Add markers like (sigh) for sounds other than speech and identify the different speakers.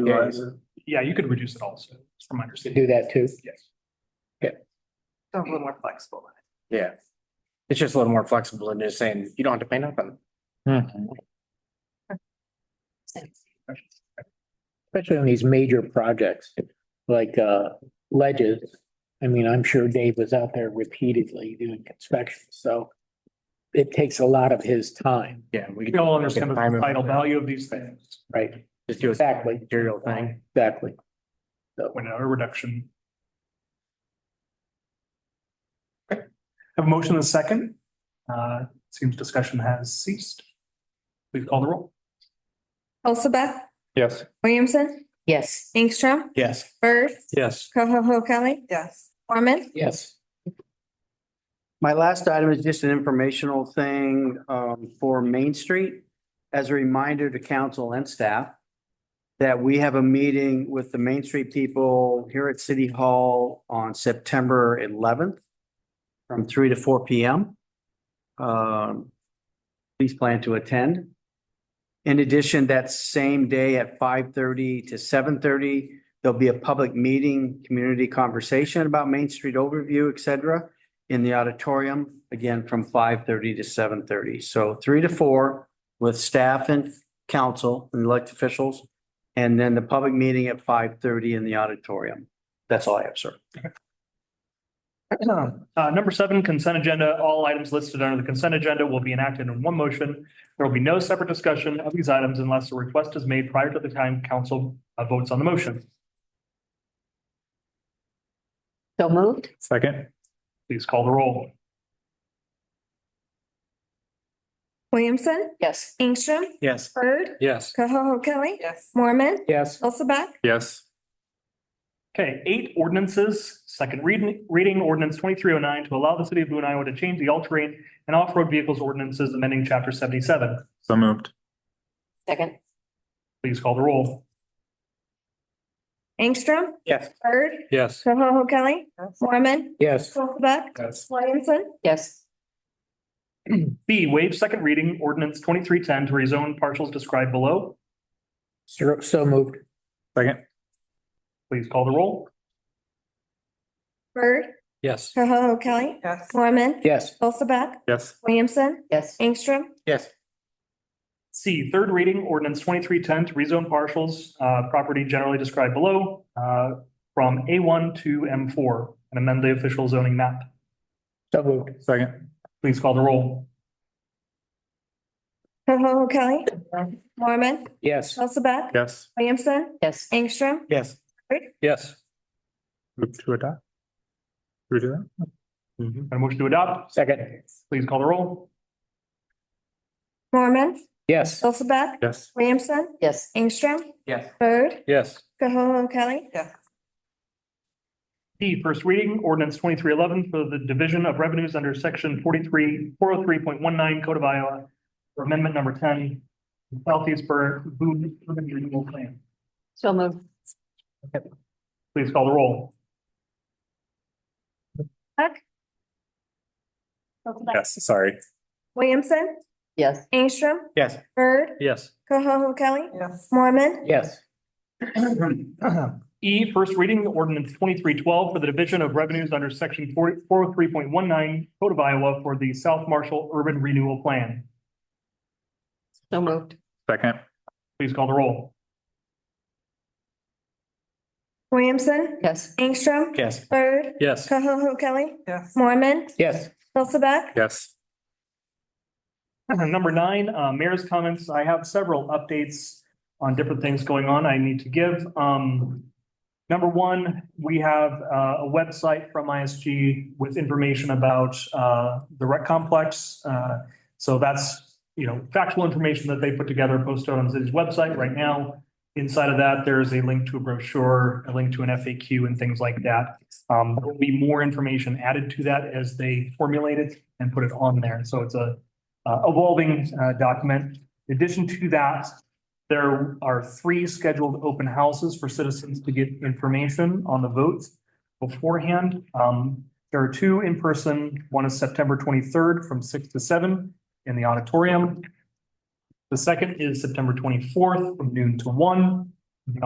Speaker 1: like that.
Speaker 2: uh,
Speaker 3: Eliza.
Speaker 4: Yeah, you could reduce it also, from my
Speaker 1: Could
Speaker 4: understanding.
Speaker 1: do that too.
Speaker 4: Yes.
Speaker 5: So a little more flexible.
Speaker 1: Yeah. It's just a little more flexible than just saying you don't have to pay nothing, especially on these major projects like uh ledges. I mean, I'm sure Dave was out there repeatedly doing inspections, so it takes a lot of his time,
Speaker 2: Yeah, we
Speaker 4: We all understand the societal value of these things,
Speaker 1: right?
Speaker 2: just do
Speaker 1: Exactly.
Speaker 2: material thing.
Speaker 1: Exactly.
Speaker 4: when a reduction. Okay. Have a motion and a second. Uh, seems discussion has ceased. Please call the roll.
Speaker 6: Hulseth,
Speaker 2: Yes.
Speaker 6: Williamson,
Speaker 5: Yes.
Speaker 6: Ingstrom,
Speaker 2: Yes.
Speaker 6: Bird,
Speaker 2: Yes.
Speaker 6: Koho Kelly,
Speaker 5: Yes.
Speaker 6: Mormon,
Speaker 1: Yes.
Speaker 3: My last item is just an informational thing um, for Main Street. As a reminder to council and staff that we have a meeting with the Main Street people here at City Hall on September eleventh from three to four P M. Um, Please plan to attend. In addition, that same day at five thirty to seven thirty, there'll be a public meeting, community conversation about Main Street overview, et cetera in the auditorium, again, from five thirty to seven thirty. So three to four with staff and council and elected officials. And then the public meeting at five thirty in the auditorium. That's all I have, sir.
Speaker 4: Uh, number seven, consent agenda. All items listed under the consent agenda will be enacted in one motion. There will be no separate discussion of these items unless a request is made prior to the time council uh, votes on the motion.
Speaker 5: So moved?
Speaker 4: Second. Please call the roll.
Speaker 6: Williamson,
Speaker 5: Yes.
Speaker 6: Ingstrom,
Speaker 2: Yes.
Speaker 6: Bird,
Speaker 2: Yes.
Speaker 6: Koho Kelly,
Speaker 5: Yes.
Speaker 6: Mormon,
Speaker 1: Yes.
Speaker 6: Hulseth,
Speaker 2: Yes.
Speaker 4: Okay, eight ordinances, second reading, reading ordinance twenty-three oh nine to allow the city of Boone, Iowa to change the all-terrain and off-road vehicles ordinances amending chapter seventy-seven.
Speaker 2: So moved.
Speaker 5: Second?
Speaker 4: Please call the roll.
Speaker 6: Ingstrom.
Speaker 2: Yes.
Speaker 6: Bird,
Speaker 2: Yes.
Speaker 6: Koho Kelly, Mormon,
Speaker 1: Yes.
Speaker 6: Hulseth,
Speaker 2: Yes.
Speaker 6: Williamson,
Speaker 5: Yes.
Speaker 4: B, waive second reading ordinance twenty-three ten to rezone parcels described below.
Speaker 1: So so moved.
Speaker 2: Second.
Speaker 4: Please call the roll.
Speaker 6: Bird,
Speaker 2: Yes.
Speaker 6: Koho Kelly,
Speaker 5: Yes.
Speaker 6: Mormon,
Speaker 1: Yes.
Speaker 6: Hulseth,
Speaker 2: Yes.
Speaker 6: Williamson,
Speaker 5: Yes.
Speaker 6: Ingstrom,
Speaker 1: Yes.
Speaker 4: C, third reading ordinance twenty-three ten to rezone parcels, uh, property generally described below, uh, from A one to M four and amend the official zoning map.
Speaker 1: So moved.
Speaker 2: Second.
Speaker 4: Please call the roll.
Speaker 6: Koho Kelly, Mormon,
Speaker 1: Yes.
Speaker 6: Hulseth,
Speaker 2: Yes.
Speaker 6: Williamson,
Speaker 5: Yes.
Speaker 6: Ingstrom,
Speaker 2: Yes. Yes. Move to adopt. We do that?
Speaker 4: Got a motion to adopt?
Speaker 1: Second.
Speaker 4: Please call the roll.
Speaker 6: Mormon,
Speaker 1: Yes.
Speaker 6: Hulseth,
Speaker 2: Yes.
Speaker 6: Williamson,
Speaker 5: Yes.
Speaker 6: Ingstrom,
Speaker 2: Yes.
Speaker 6: Bird,
Speaker 2: Yes.
Speaker 6: Koho Kelly,
Speaker 5: Yes.
Speaker 4: D, first reading, ordinance twenty-three eleven for the division of revenues under section forty-three, four oh three point one nine Code of Iowa. for Amendment number ten, Southeast Bur- Boone Urban Renewal Plan.
Speaker 5: So moved?
Speaker 4: Please call the roll.
Speaker 2: Yes, sorry.
Speaker 6: Williamson,
Speaker 5: Yes.
Speaker 6: Ingstrom.
Speaker 2: Yes.
Speaker 6: Bird,
Speaker 2: Yes.
Speaker 6: Koho Kelly,
Speaker 5: Yes.
Speaker 6: Mormon,
Speaker 1: Yes.
Speaker 4: E, first reading, ordinance twenty-three twelve for the division of revenues under section forty, four oh three point one nine Code of Iowa for the South Marshall Urban Renewal Plan.
Speaker 5: So moved?
Speaker 2: Second.
Speaker 4: Please call the roll.
Speaker 6: Williamson,
Speaker 5: Yes.
Speaker 6: Ingstrom.
Speaker 2: Yes.
Speaker 6: Bird,
Speaker 2: Yes.
Speaker 6: Koho Kelly,
Speaker 5: Yes.
Speaker 6: Mormon,
Speaker 1: Yes.
Speaker 6: Hulseth,
Speaker 2: Yes.
Speaker 4: (clears throat) Number nine, uh, mayor's comments. I have several updates on different things going on I need to give. Um, number one, we have uh, a website from ISG with information about, uh, the rec complex. Uh, so that's, you know, factual information that they put together, posted on the city's website right now. Inside of that, there's a link to a brochure, a link to an FAQ and things like that. Um, there'll be more information added to that as they formulate it and put it on there. So it's a uh, evolving uh, document. In addition to that, there are three scheduled open houses for citizens to get information on the votes beforehand. Um, there are two in person. One is September twenty-third from six to seven in the auditorium. The second is September twenty-fourth from noon to one